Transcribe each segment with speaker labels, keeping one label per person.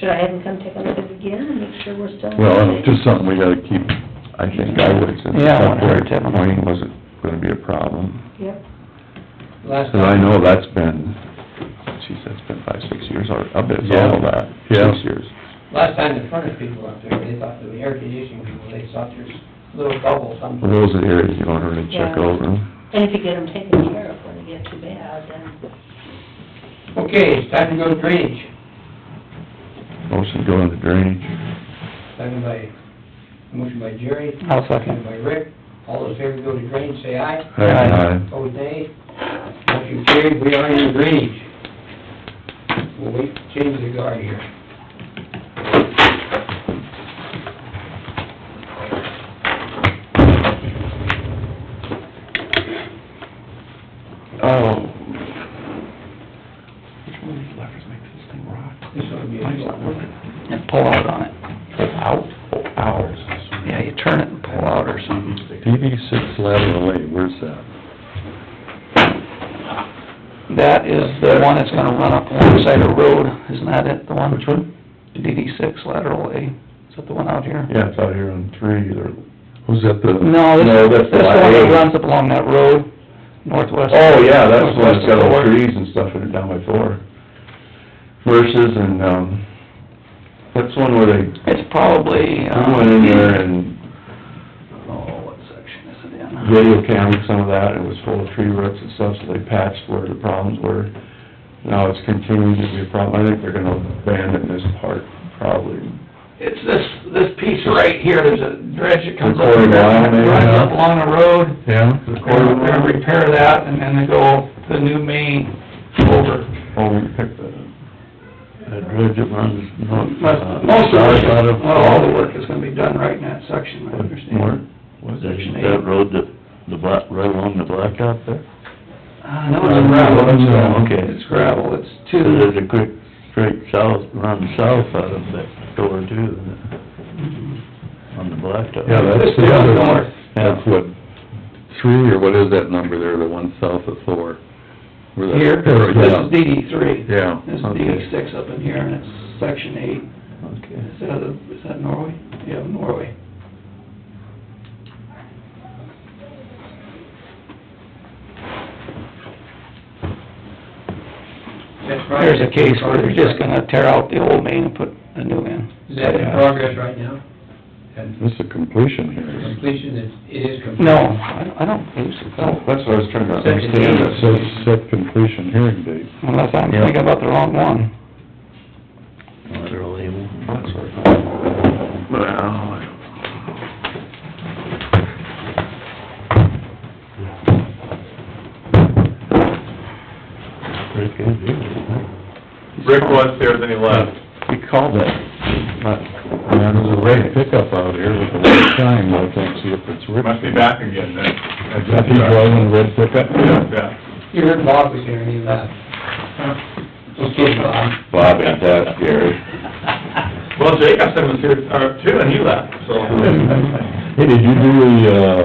Speaker 1: Should I have him come take a look at it again and make sure we're still?
Speaker 2: Well, and it's just something we gotta keep,
Speaker 3: I think I would, since the
Speaker 4: Yeah, I wouldn't hurt to have them.
Speaker 3: wing wasn't gonna be a problem.
Speaker 1: Yep,
Speaker 4: Last
Speaker 3: Cause I know that's been, geez, that's been five, six years already, I bet it's all of that,
Speaker 2: Yeah.
Speaker 3: six years.
Speaker 4: Last time the furnace people up there, they thought, the air conditioning people, they thought there's little bubbles
Speaker 3: Well,
Speaker 4: somewhere.
Speaker 3: those are the areas you wanna really check
Speaker 1: Yeah.
Speaker 3: over.
Speaker 1: and if you get them taken care of when they get too bad, then,
Speaker 3: Mm-hmm.
Speaker 4: Okay, it's time to go to drainage.
Speaker 3: Motion go into drainage.
Speaker 4: Second by, motion by Jerry.
Speaker 5: I'll
Speaker 4: Second
Speaker 5: second.
Speaker 4: by Rick. All those in favor go to drainage, say aye.
Speaker 3: Aye. Aye.
Speaker 4: Opposed, nay. Motion carried, we are in drainage. We'll wait, change the guard here.
Speaker 3: Oh. Which one of these levers makes this thing rock?
Speaker 4: This ought to be a-
Speaker 3: Mine's not working.
Speaker 5: And pull out on it.
Speaker 3: Out, oh, hours.
Speaker 5: Yeah, you turn it and pull out or something.
Speaker 2: DD six lateral A, where's that?
Speaker 5: That is the one that's gonna run up alongside a road, isn't that it, the one?
Speaker 3: Which one?
Speaker 5: DD six lateral A, is that the one out here?
Speaker 3: Yeah, it's out here on three, or, was that the?
Speaker 5: No, this, this the one
Speaker 3: lot
Speaker 5: that
Speaker 3: eight.
Speaker 5: runs up along that road, northwest.
Speaker 3: Oh, yeah, that's the one that's got all the
Speaker 5: northwest of
Speaker 3: trees and stuff in it down by four. Versus, and, um, that's one where they,
Speaker 5: Fort. It's probably,
Speaker 3: we
Speaker 5: um...
Speaker 3: went in there and
Speaker 5: Oh, what section is it in?
Speaker 3: video cammed some of that, and it was full of tree roots and stuff, so they patched where the problems were. Now it's continuing to be a problem, I think they're gonna abandon this part, probably.
Speaker 5: It's this, this piece right here, there's a dredge that comes up,
Speaker 3: Quarter mile, maybe,
Speaker 5: runs
Speaker 3: yeah.
Speaker 5: up along the road,
Speaker 3: Yeah.
Speaker 5: They're gonna repair that, and then they go the new main over.
Speaker 3: Oh, we picked that up. That dredge that runs north. uh,
Speaker 5: Most most of it, not all the work is gonna be done right in that section, I understand.
Speaker 3: Was
Speaker 5: Section eight.
Speaker 6: That road that, the black, right along the blacktop there?
Speaker 5: Uh, no, it's gravel,
Speaker 3: Oh, okay.
Speaker 5: it's gravel, it's two,
Speaker 6: There's a quick, straight south, run south out of that door too, on the blacktop.
Speaker 3: Yeah, that's the other one.
Speaker 2: That's what, three, or what is that number there, the one south of Thor? Where that-
Speaker 5: here, this
Speaker 2: Or,
Speaker 5: is
Speaker 2: Yeah,
Speaker 5: DD three.
Speaker 2: Yeah,
Speaker 5: This is
Speaker 2: okay.
Speaker 5: DD six up in here, and it's section eight,
Speaker 3: Okay.
Speaker 5: is that, the- is that Norway? Yeah, Norway.
Speaker 4: That's right.
Speaker 5: There's a case where they're just gonna tear out the old main and put a new in.
Speaker 4: Is that in progress right now? And
Speaker 2: this is completion here.
Speaker 4: completion is, it is complete?
Speaker 5: No, I don't- I don't believe so,
Speaker 3: That's what I was trying to
Speaker 4: Section
Speaker 3: understand,
Speaker 4: eight.
Speaker 3: that says set completion hearing date.
Speaker 5: unless I'm thinking about the wrong one.
Speaker 6: Lateral A1.
Speaker 3: That's what I thought. Well, I don't know.
Speaker 6: Pretty good deal, isn't
Speaker 7: Rick was there, then he left.
Speaker 3: We called that, but,
Speaker 2: Yeah, there's a red pickup out here with a red sign, I can't see if it's Rick's.
Speaker 7: Must be back again then.
Speaker 2: Is that he driving the red pickup?
Speaker 7: Yeah,
Speaker 4: You heard Bob was here and he left. Okay, Bob.
Speaker 6: Bob, ain't that scary?
Speaker 7: yeah. Well, Jacobson was here, uh, too, and he left, so.
Speaker 2: Hey, did you do the, uh,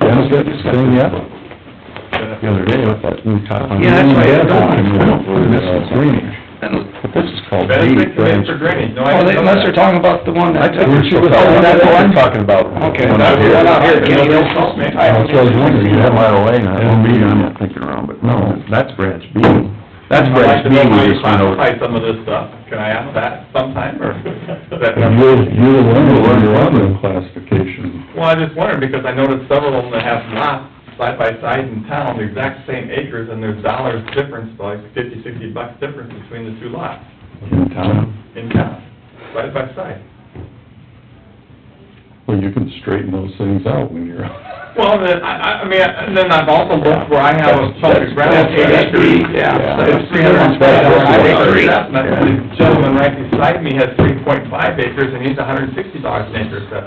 Speaker 2: Dennis thing yet?
Speaker 7: Yeah.
Speaker 3: the other day, I thought,
Speaker 2: hmm,
Speaker 3: we talked on.
Speaker 5: Yeah, that's right.
Speaker 3: Yeah, that's right. This is drainage.
Speaker 5: Unless
Speaker 3: But this is called
Speaker 7: Better
Speaker 3: drainage.
Speaker 7: fix it in for drainage, no, I
Speaker 5: well, they-
Speaker 7: didn't know
Speaker 5: unless they're
Speaker 7: that.
Speaker 5: talking about the one that...
Speaker 3: Oh, that's what I'm talking about.
Speaker 5: Okay.
Speaker 3: One out here.
Speaker 5: One out here, Kenny, don't call me.
Speaker 3: I was wondering, you had my lane, I don't mean, I'm not thinking around, but no, that's branch B. That's
Speaker 7: I'd
Speaker 3: branch
Speaker 7: like to
Speaker 3: B
Speaker 7: know how
Speaker 3: we
Speaker 7: you
Speaker 3: just went over.
Speaker 7: classify some of this stuff. Can I ask that sometime, or?
Speaker 2: And you're, you're the one who learned your own classification.
Speaker 7: Well, I just wondered, because I noticed several of them that have lots side by side in town, the exact same acres, and there's dollars difference, like fifty, sixty bucks difference between the two lots
Speaker 3: In town.
Speaker 7: in town, side by side.
Speaker 2: Well, you can straighten those things out when you're,
Speaker 7: Well, then, I, I, I mean, and then I've also looked where I have a chunk of ground,
Speaker 3: That's- that's-
Speaker 7: eight acres,
Speaker 3: yeah.
Speaker 7: yeah, it's three hundred and twenty
Speaker 3: That's-
Speaker 7: dollars
Speaker 3: that's-
Speaker 7: an acre,
Speaker 3: that's-
Speaker 7: assessment.
Speaker 3: yeah.
Speaker 7: the gentleman right beside me has three point five acres, and he's a hundred and sixty dollars an acre assessment.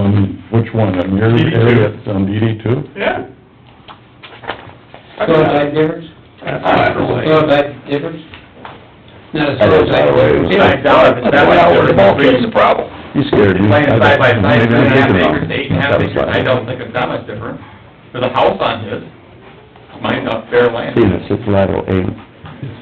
Speaker 2: on which one, on your
Speaker 7: DD two.
Speaker 2: area, it's on DD two?
Speaker 7: Yeah. I mean,
Speaker 4: Soil type difference? Soil type difference? Not a
Speaker 3: I
Speaker 4: soil
Speaker 3: was out
Speaker 4: type
Speaker 3: of way.
Speaker 4: difference.
Speaker 7: Five dollars, but that's not worth the
Speaker 3: is the problem. You scared me.
Speaker 7: Laying side by side,
Speaker 3: Maybe
Speaker 7: three
Speaker 3: I'm
Speaker 7: and a half
Speaker 3: thinking
Speaker 7: acres,
Speaker 3: wrong.
Speaker 7: to eight and a half
Speaker 3: That was
Speaker 7: acres,
Speaker 3: last-
Speaker 7: I don't think it's that much different. There's a house on his, mine's up bare land.
Speaker 3: See, this is lateral eight,